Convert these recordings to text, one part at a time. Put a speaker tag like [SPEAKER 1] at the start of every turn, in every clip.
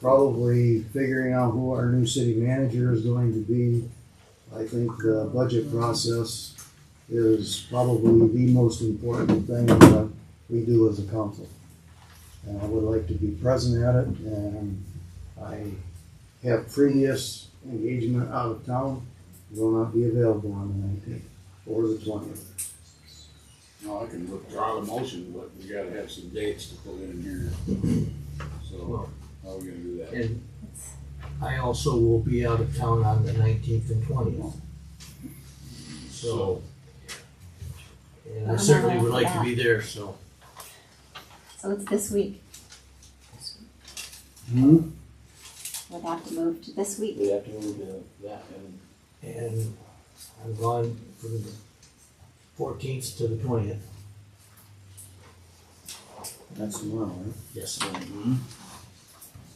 [SPEAKER 1] probably figuring out who our new city manager is going to be. I think the budget process is probably the most important thing that we do as a council. And I would like to be present at it, and I have previous engagement out of town, will not be available on the nineteenth or the twentieth.
[SPEAKER 2] No, I can withdraw the motion, but we gotta have some dates to put in here. So, how are we gonna do that?
[SPEAKER 3] And I also will be out of town on the nineteenth and twentieth. So. And I certainly would like to be there, so.
[SPEAKER 4] So it's this week.
[SPEAKER 1] Hmm?
[SPEAKER 4] We'll have to move to this week.
[SPEAKER 5] We have to move to that and
[SPEAKER 3] And I'm gone from the fourteenth to the twentieth.
[SPEAKER 1] That's tomorrow, right?
[SPEAKER 3] Yes.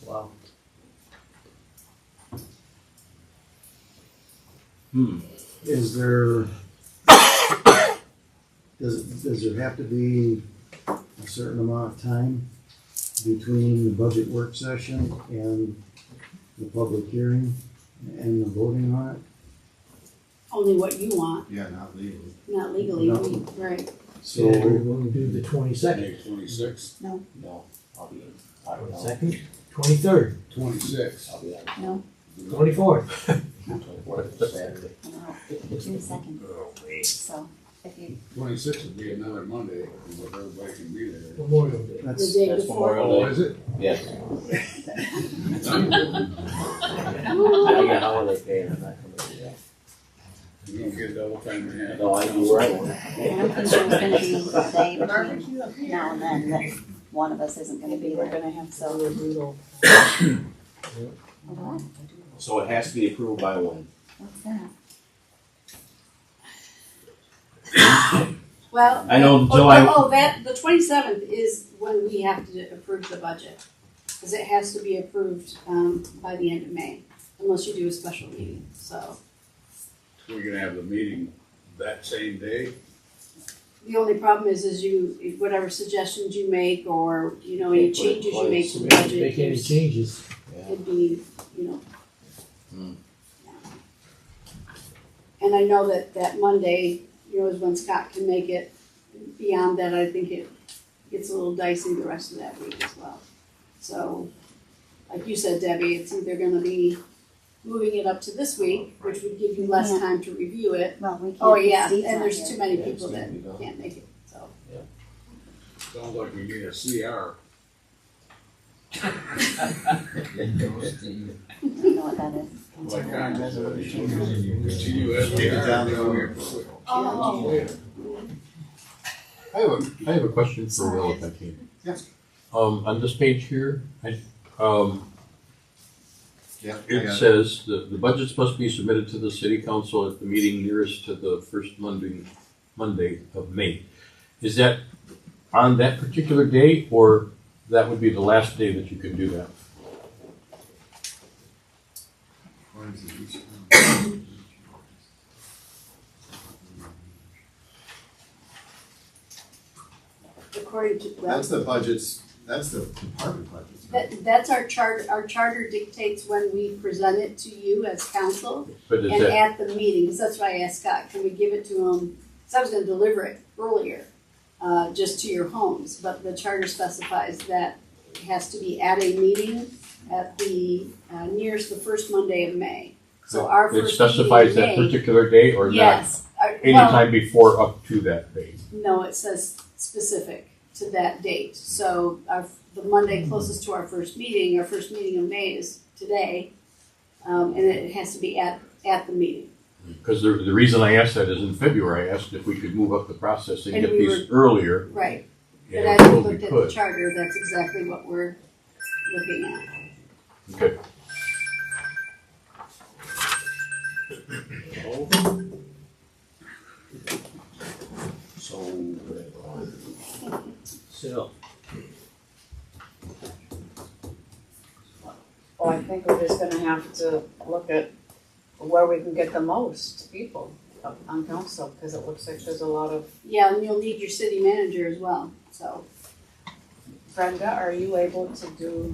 [SPEAKER 5] wow.
[SPEAKER 1] Is there, does, does there have to be a certain amount of time between the budget work session and the public hearing and the voting on it?
[SPEAKER 6] Only what you want,
[SPEAKER 7] Yeah, not legally.
[SPEAKER 6] not legally,
[SPEAKER 1] No.
[SPEAKER 6] we- right,
[SPEAKER 3] So we're
[SPEAKER 1] So,
[SPEAKER 3] going to do the twenty-second,
[SPEAKER 2] May twenty-sixth,
[SPEAKER 5] No, I'll be, I don't know.
[SPEAKER 3] twenty-second, twenty-third,
[SPEAKER 2] twenty-sixth.
[SPEAKER 5] I'll be out
[SPEAKER 4] No,
[SPEAKER 3] twenty-fourth.
[SPEAKER 5] twenty-fourth, Saturday.
[SPEAKER 4] I don't know. June second. So if you,
[SPEAKER 2] Twenty-sixth would be another Monday, if everybody can be there.
[SPEAKER 3] Memorial Day.
[SPEAKER 6] the
[SPEAKER 1] that's,
[SPEAKER 6] day
[SPEAKER 5] That's
[SPEAKER 6] before.
[SPEAKER 2] Oh,
[SPEAKER 5] Memorial Day.
[SPEAKER 2] is it?
[SPEAKER 5] Yes.
[SPEAKER 2] I'm good.
[SPEAKER 5] I got holiday pay and I'm not coming to
[SPEAKER 2] You don't get double time and a
[SPEAKER 5] that.
[SPEAKER 2] half.
[SPEAKER 5] No, I do where I
[SPEAKER 4] I don't think there's gonna
[SPEAKER 5] want.
[SPEAKER 4] be a day between now and then that one of us isn't gonna be
[SPEAKER 6] We're
[SPEAKER 4] there.
[SPEAKER 6] gonna have some brutal.
[SPEAKER 4] What?
[SPEAKER 5] So it has to be approved by one.
[SPEAKER 4] What's that?
[SPEAKER 6] Well.
[SPEAKER 5] I know
[SPEAKER 6] oh,
[SPEAKER 5] July-
[SPEAKER 6] Oh, that, the twenty-seventh is when we have to approve the budget, cause it has to be approved, um, by the end of May, unless you do a special meeting, so.
[SPEAKER 2] We're gonna have the meeting that same day,
[SPEAKER 6] The only problem is, is you, whatever suggestions you make, or, you know, any
[SPEAKER 5] Can't put it
[SPEAKER 6] changes you make to the
[SPEAKER 5] twice.
[SPEAKER 6] budget.
[SPEAKER 3] Make any
[SPEAKER 6] there's-
[SPEAKER 3] changes.
[SPEAKER 6] could be, you know.
[SPEAKER 5] Hmm.
[SPEAKER 6] And I know that that Monday, you know, is when Scott can make it. Beyond that, I think it gets a little dicey the rest of that week as well. So, like you said, Debbie, it's either gonna be moving it up to this week, which would give you less
[SPEAKER 4] Yeah.
[SPEAKER 6] time to review it.
[SPEAKER 4] Well, we can't.
[SPEAKER 6] Oh, yeah,
[SPEAKER 4] Steve's
[SPEAKER 6] and
[SPEAKER 4] not
[SPEAKER 6] there's
[SPEAKER 4] here.
[SPEAKER 6] too many
[SPEAKER 5] Yeah,
[SPEAKER 6] people
[SPEAKER 5] it's
[SPEAKER 6] that
[SPEAKER 5] gonna be gone.
[SPEAKER 6] can't make it, so.
[SPEAKER 2] sounds like we need a CR.
[SPEAKER 4] I don't know what that is.
[SPEAKER 2] Like Congress, uh, continue as we
[SPEAKER 7] Take it down the
[SPEAKER 2] are.
[SPEAKER 6] Oh.
[SPEAKER 8] I have a, I have a question for Will if I can.
[SPEAKER 7] Yes.
[SPEAKER 8] Um, on this page here, I, um,
[SPEAKER 7] Yeah, I
[SPEAKER 8] it
[SPEAKER 7] got it.
[SPEAKER 8] says the, the budgets must be submitted to the city council at the meeting nearest to the first Monday, Monday of May. Is that on that particular day or that would be the last day that you can do that?
[SPEAKER 7] Or is it each one?
[SPEAKER 6] According to, well,
[SPEAKER 7] That's the budgets, that's the department budgets. right?
[SPEAKER 6] that, that's our charter, our charter dictates when we present it to you as council.
[SPEAKER 8] But is
[SPEAKER 6] And
[SPEAKER 8] that,
[SPEAKER 6] at the meeting, because that's why I asked Scott, can we give it to them? Because I was gonna deliver it earlier, uh, just to your homes, but the charter specifies that it has to be at a meeting at the, uh, nearest the first Monday of May. So our
[SPEAKER 8] it
[SPEAKER 6] first meeting
[SPEAKER 8] specifies that
[SPEAKER 6] in May-
[SPEAKER 8] particular day or not?
[SPEAKER 6] Yes, Uh, well,
[SPEAKER 8] Anytime before up to that day?
[SPEAKER 6] no, it says specific to that date, so our, the Monday closest to our first meeting, our first meeting of May is today. Um, and it has to be at, at the meeting.
[SPEAKER 8] Because the, the reason I asked that is in February, I asked if we could move up the process and
[SPEAKER 6] And
[SPEAKER 8] get
[SPEAKER 6] we
[SPEAKER 8] these earlier.
[SPEAKER 6] Right, but
[SPEAKER 8] and
[SPEAKER 6] as
[SPEAKER 8] so
[SPEAKER 6] we
[SPEAKER 8] we
[SPEAKER 6] looked at the
[SPEAKER 8] could.
[SPEAKER 6] charter, that's exactly what we're looking at.
[SPEAKER 8] Okay.
[SPEAKER 5] So,
[SPEAKER 3] So,
[SPEAKER 9] Well, I think we're just gonna have to look at where we can get the most people up on council, because it looks like there's a lot of.
[SPEAKER 6] Yeah, and you'll need your city manager as well, so.
[SPEAKER 9] Brenda, are you able to do